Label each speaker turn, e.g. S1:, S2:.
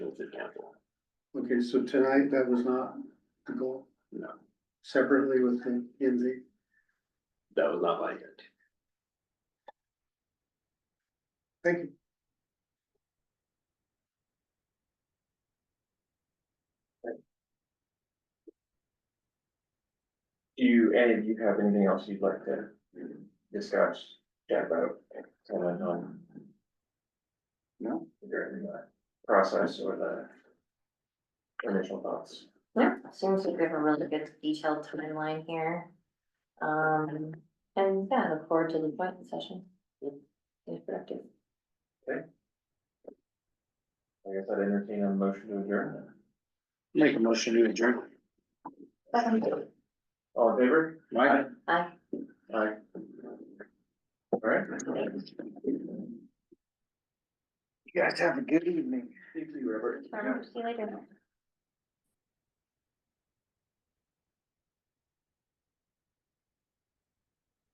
S1: the city council.
S2: Okay, so tonight, that was not the goal?
S1: No.
S2: Separately with the, in the,
S1: That was not my intent.
S2: thank you.
S3: Do you, Ed, do you have anything else you'd like to discuss, chat about, comment on?
S2: No.
S3: During the process or the initial thoughts?
S4: Yeah, seems like we have a really good detailed timeline here. Um, and yeah, look forward to the appointment session. It's productive.
S3: I guess I'd entertain a motion to adjourn then.
S1: Make a motion to adjourn.
S3: All in favor?
S1: Right.
S4: Aye.
S3: Aye. All right.
S2: You guys have a good evening.
S3: Thank you, Robert.
S4: Um, See you later.